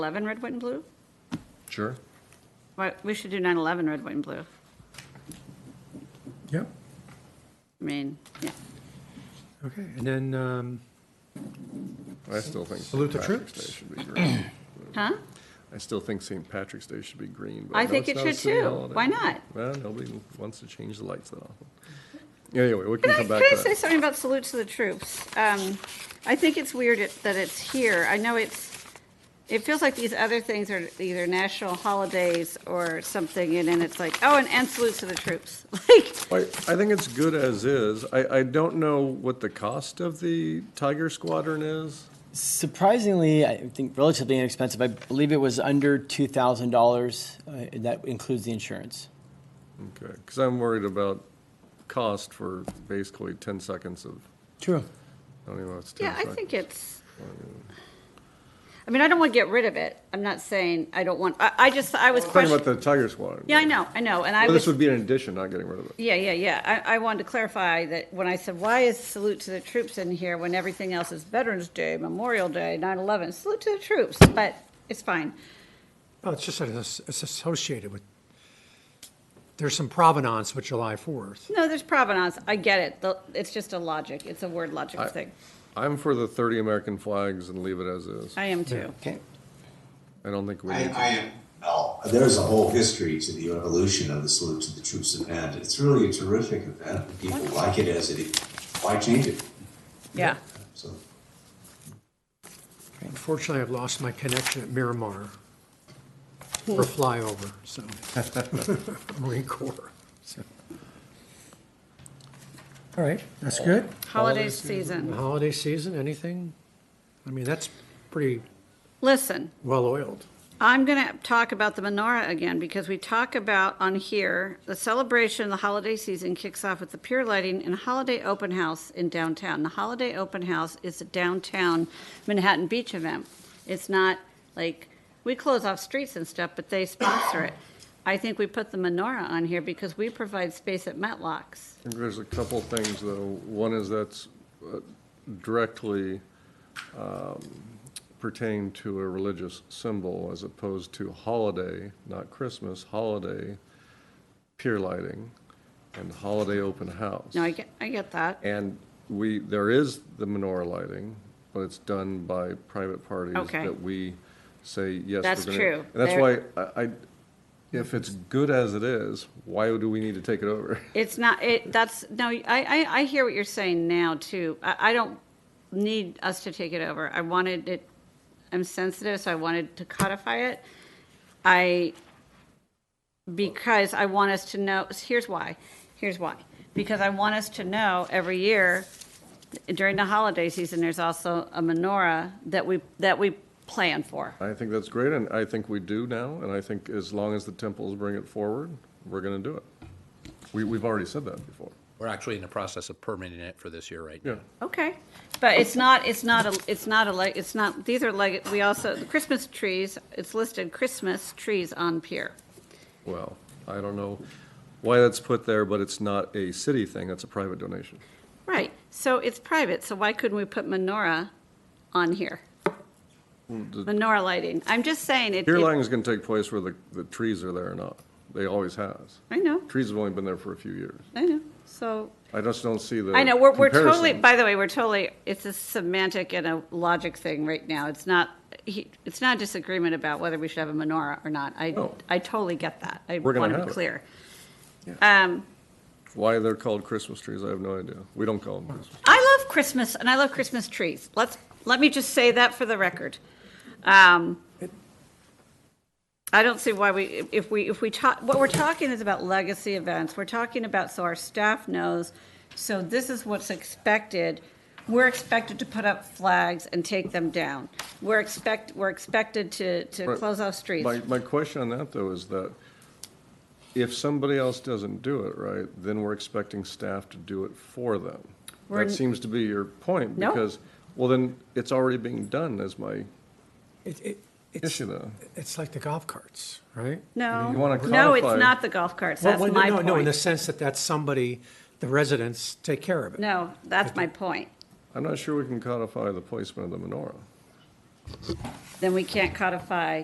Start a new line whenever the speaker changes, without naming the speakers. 11 red, white, and blue?
Sure.
Why, we should do 9/11 red, white, and blue.
Yep,
I mean, yeah.
okay, and then, um,
I still think.
Salute the
St.
troops.
Patrick's Day should be green.
Huh?
I still think St. Patrick's Day should be green. but
I
know
think
it's
it
not a
should
city
too.
holiday.
Why not?
Well, nobody wants to change the lights that often. Anyway, we can
Can I, can
come back
I
to
say
that.
something about salute to the troops? Um, I think it's weird it- that it's here. I know it's, it feels like these other things are either national holidays or something, and then it's like, oh, and, and salute to the troops. Like,
I, I think it's good as is. I, I don't know what the cost of the Tiger Squadron is.
Surprisingly, I think relatively inexpensive. I believe it was under two thousand dollars. uh, That includes the insurance.
Okay, because I'm worried about cost for basically ten seconds of,
True.
I don't even know if it's ten
yeah, I
seconds.
think it's, I mean, I don't want to get rid of it. I'm not saying I don't want, I, I just, I was
Talking
questioning.
about the Tiger Squadron.
Yeah, I know, I know, and I
Well,
was.
This would be an addition, not getting rid of it.
Yeah, yeah, yeah. I, I wanted to clarify that when I said, why is salute to the troops in here when everything else is Veterans Day, Memorial Day, 9/11, salute to the troops, but it's fine.
well, it's just that it's it's associated with, there's some provenance with July 4th.
No, there's provenance. I get it. The- It's just a logic. It's a word logic
I-
thing.
I'm for the thirty American flags and leave it as is.
I am too.
Okay.
I don't think we
I,
need.
I am, no, there's a whole history to the evolution of the Salute to the Troops event. It's really a terrific event. People like it as it is. Why change it?
Yeah.
So,
Unfortunately, I've lost my connection at Miramar for a flyover, so. Marine Corps. so. All right, that's good.
Holiday season.
Uh, Holiday season, anything? I mean, that's pretty
Listen,
well-oiled.
I'm going to talk about the menorah again because we talk about on here the celebration of the holiday season kicks off with the Pure Lighting and Holiday Open House in downtown. The Holiday Open House is a downtown Manhattan Beach event. It's not like we close off streets and stuff, but they sponsor it. I think we put the menorah on here because we provide space at Metlocks.
I think There's a couple things, though. One is that's uh, directly um, pertaining to a religious symbol as opposed to holiday, not Christmas, holiday pier lighting and holiday open house.
No, I get, I get that.
And we, there is the menorah lighting, but it's done by private parties.
Okay.
That we say, yes. we're
That's
gonna-"
true.
And that's why
There-
I, I- if it's good as it is, why do we need to take it over?
It's not, it, that's, no, I, I, I hear what you're saying now too. I, I don't need us to take it over. I wanted it, I'm sensitive, so I wanted to codify it. I, because I want us to know, here's why, here's why. Because I want us to know every year during the holiday season, there's also a menorah that we, that we plan for.
I think that's great, and I think we do now, and I think as long as the temples bring it forward, we're gonna do it. We, we've already said that before.
We're actually in the process of permitting it for this year right now.
Yeah,
Okay, but it's not, it's not, a it's not a, leg. it's not, these are like, we also, the Christmas trees, it's listed Christmas trees on pier.
well, I don't know why that's put there, but it's not a city thing, that's a private donation.
Right, so it's private, so why couldn't we put menorah on here? Menorah lighting, I'm just saying it.
Pier
it-
lighting is gonna take place where the, the trees are there or not. They always has.
I know,
Trees have only been there for a few years.
I know, so,
I just don't see the
I know, we're, we're totally,
comparison.
by the way, we're totally, it's a semantic and a logic thing right now. It's not, he- it's not a disagreement about whether we should have a menorah or not. I,
No.
I totally get that, I
We're gonna
want to
have
be
it.
clear. Um,
Why they're called Christmas trees, I have no idea. We don't call them Christmas.
I love Christmas and I love Christmas trees. Let's, let me just say that for the record. Um, I don't see why we, if we, if we talk, what we're talking is about legacy events. We're talking about, so our staff knows, so this is what's expected. We're expected to put up flags and take them down. We're expect, we're expected to, to
Right.
close off streets.
My, my question on that, though, is that if somebody else doesn't do it right, then we're expecting staff to do it for them.
We're n-
That seems to be your point,
No.
because, well, then, it's already being done, is my
It, it, it's,
issue, though.
it's like the golf carts, right?
You
No,
wanna
no, it's
codify-
not the golf carts.
Well,
That's
well,
my
no, No, in the
point.
sense that that's somebody, the residents take care of it.
No, that's my point.
I'm not sure we can codify the placement of the menorah.
then we can't codify